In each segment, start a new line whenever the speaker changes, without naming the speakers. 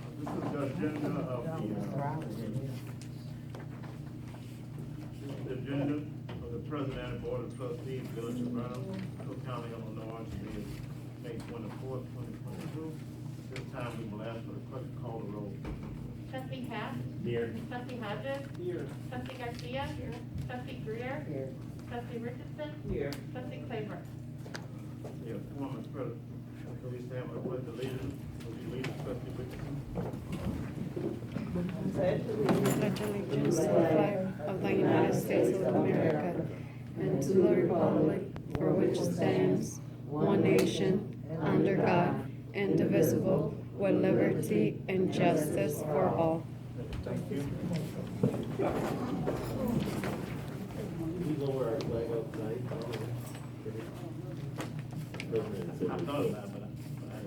the uh, agenda of the, uh, the agenda of the President and Board of Trustees, Village of Burnham, Cook County, Illinois, today is May twenty-fourth, twenty twenty-two. This time we will ask for the clerk to call the roll.
Trustee Pat?
Here.
Trustee Hodges?
Here.
Trustee Garcia? Here. Trustee Greer?
Here.
Trustee Richardson?
Here.
Trustee Claybrook?
Yeah, form is present. Please stand by the pledge of allegiance. Would you lead us, trustee Richardson?
pledge allegiance to the flag of the United States of America and to the republic for which it stands, one nation, under God, indivisible, with liberty and justice for all.
Thank you.
We lower our flag outside.
I thought about it, but I,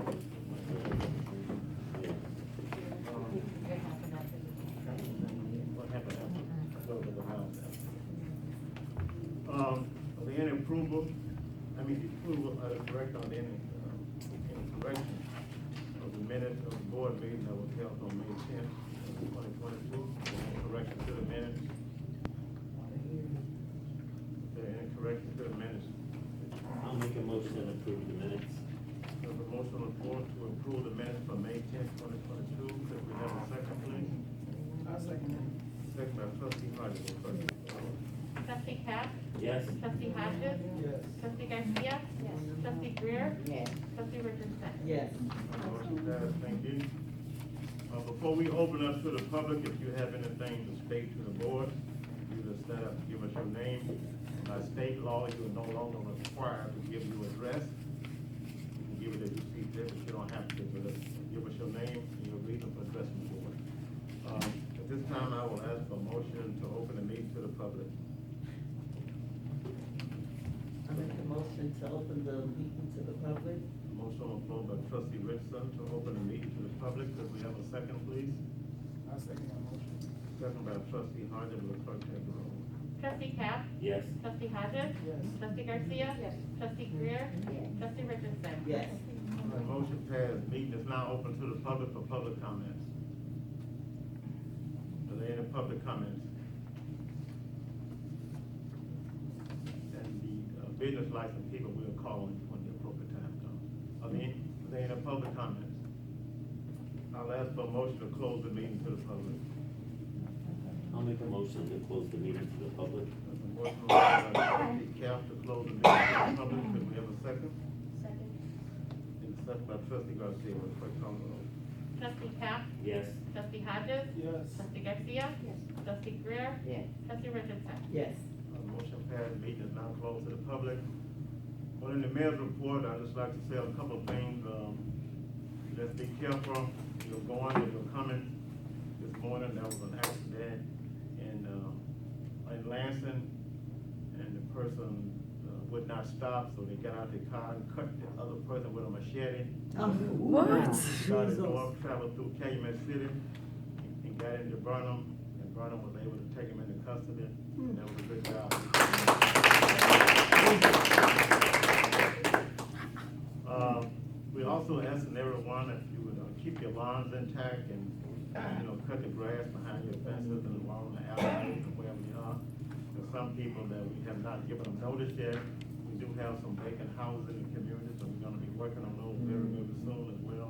but I What happened after? Go to the round now. Um, are there any approval, I mean, approval, uh, correct on any, uh, any correction of the minutes of the board meeting that was held on May tenth, twenty twenty-two? Correction to the minutes? Is there any correction to the minutes?
I'll make a motion to approve the minutes.
There's a motion on the floor to approve the minutes for May tenth, twenty twenty-two. Could we have a second, please?
I'll second
Second by trustee Hodges. Clerk,
Trustee Pat?
Yes,
Trustee Hodges?
Yes.
Trustee Garcia? Yes. Trustee Greer? Yes. Trustee Richardson?
Yes.
the Motion passed, thank you. Uh, before we open up to the public, if you have anything to state to the board, you just stand up, give us your name. By state law, you are no longer required to give your address. You can give it as you see fit, but you don't have to, but uh, give us your name and your reason for addressing the board. Um, at this time, I will ask for a motion to open the meeting to the public.
I make a motion to open the meeting to the public.
Motion on the floor by trustee Richardson to open the meeting to the public. Could we have a second, please?
I second that motion.
Second by trustee Hodges, will clerk take the roll?
Trustee Pat?
yes,
Trustee Hodges?
Yes.
Trustee Garcia? Yes. Trustee Greer? Yes. Trustee Richardson?
Yes.
The motion passed. Meeting is now open to the public for public comments. Are there any public comments? And the uh, business license people will call when when the appropriate time comes. Are there, any- are there any public comments? I'll ask for a motion to close the meeting to the public.
I'll make a motion to close the meeting to the public.
There's a motion on the floor by trustee Cap to close the meeting to the public. Could we have a second? And a second by trustee Garcia. Will clerk call the roll?
Trustee Pat?
Yes,
Trustee Hodges?
Yes.
Trustee Garcia? Yes. Trustee Greer?
Yes.
Trustee Richardson?
Yes.
Uh, Motion passed, meeting is now closed to the public. Well, in the mayor's report, I'd just like to say a couple of things, um, let's be careful, you're going and you're coming. This morning, there was an accident in, um, in Lansing, and the person uh, would not stop, so they got out their car and cut the other person with a machete.
Oh, What?
Started north, traveled through Calumet City, and got into Burnham, and Burnham was able to take him into custody, and that was a good job. Um, we also asking everyone if you would uh, keep your lawns intact and, you know, cut the grass behind your fences and along the alleyways and wherever you are. There's some people that we have not given them notice yet. We do have some vacant houses in the community, so we're gonna be working on those very, very soon as well.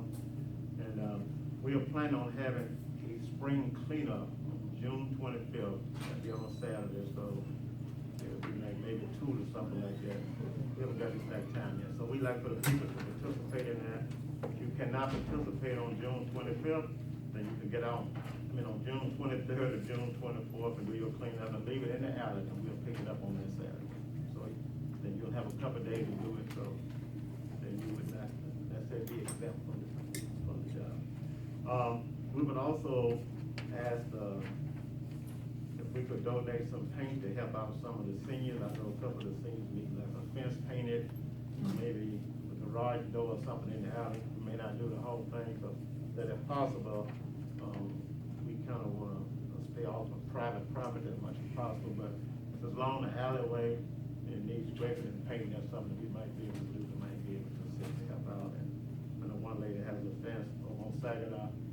And, um, we are planning on having a spring cleanup on June twenty-fifth, that'll be on a Saturday, so It'll be like maybe two or something like that. We haven't got the exact time yet, so we like for the people to participate in that. If you cannot participate on June twenty-fifth, then you can get out, I mean, on June twenty-third or June twenty-fourth, and we will clean up and leave it in the alley, and we'll pick it up on that Saturday. So then you'll have a couple of days to do it, so then you would not, that's it, be exempt from the, from the job. Um, we would also ask, uh, if we could donate some paint to help out some of the seniors, I know a couple of the seniors need like a fence painted, maybe a garage door or something in the alley, we may not do the whole thing, but that if possible, um, we kind of want to stay off of private property as much as possible, but if it's along the alleyway, and it needs scraping and painting, that's something we might be able to do, we might be able to assist, help out, and I know one lady has a fence on Saginaw,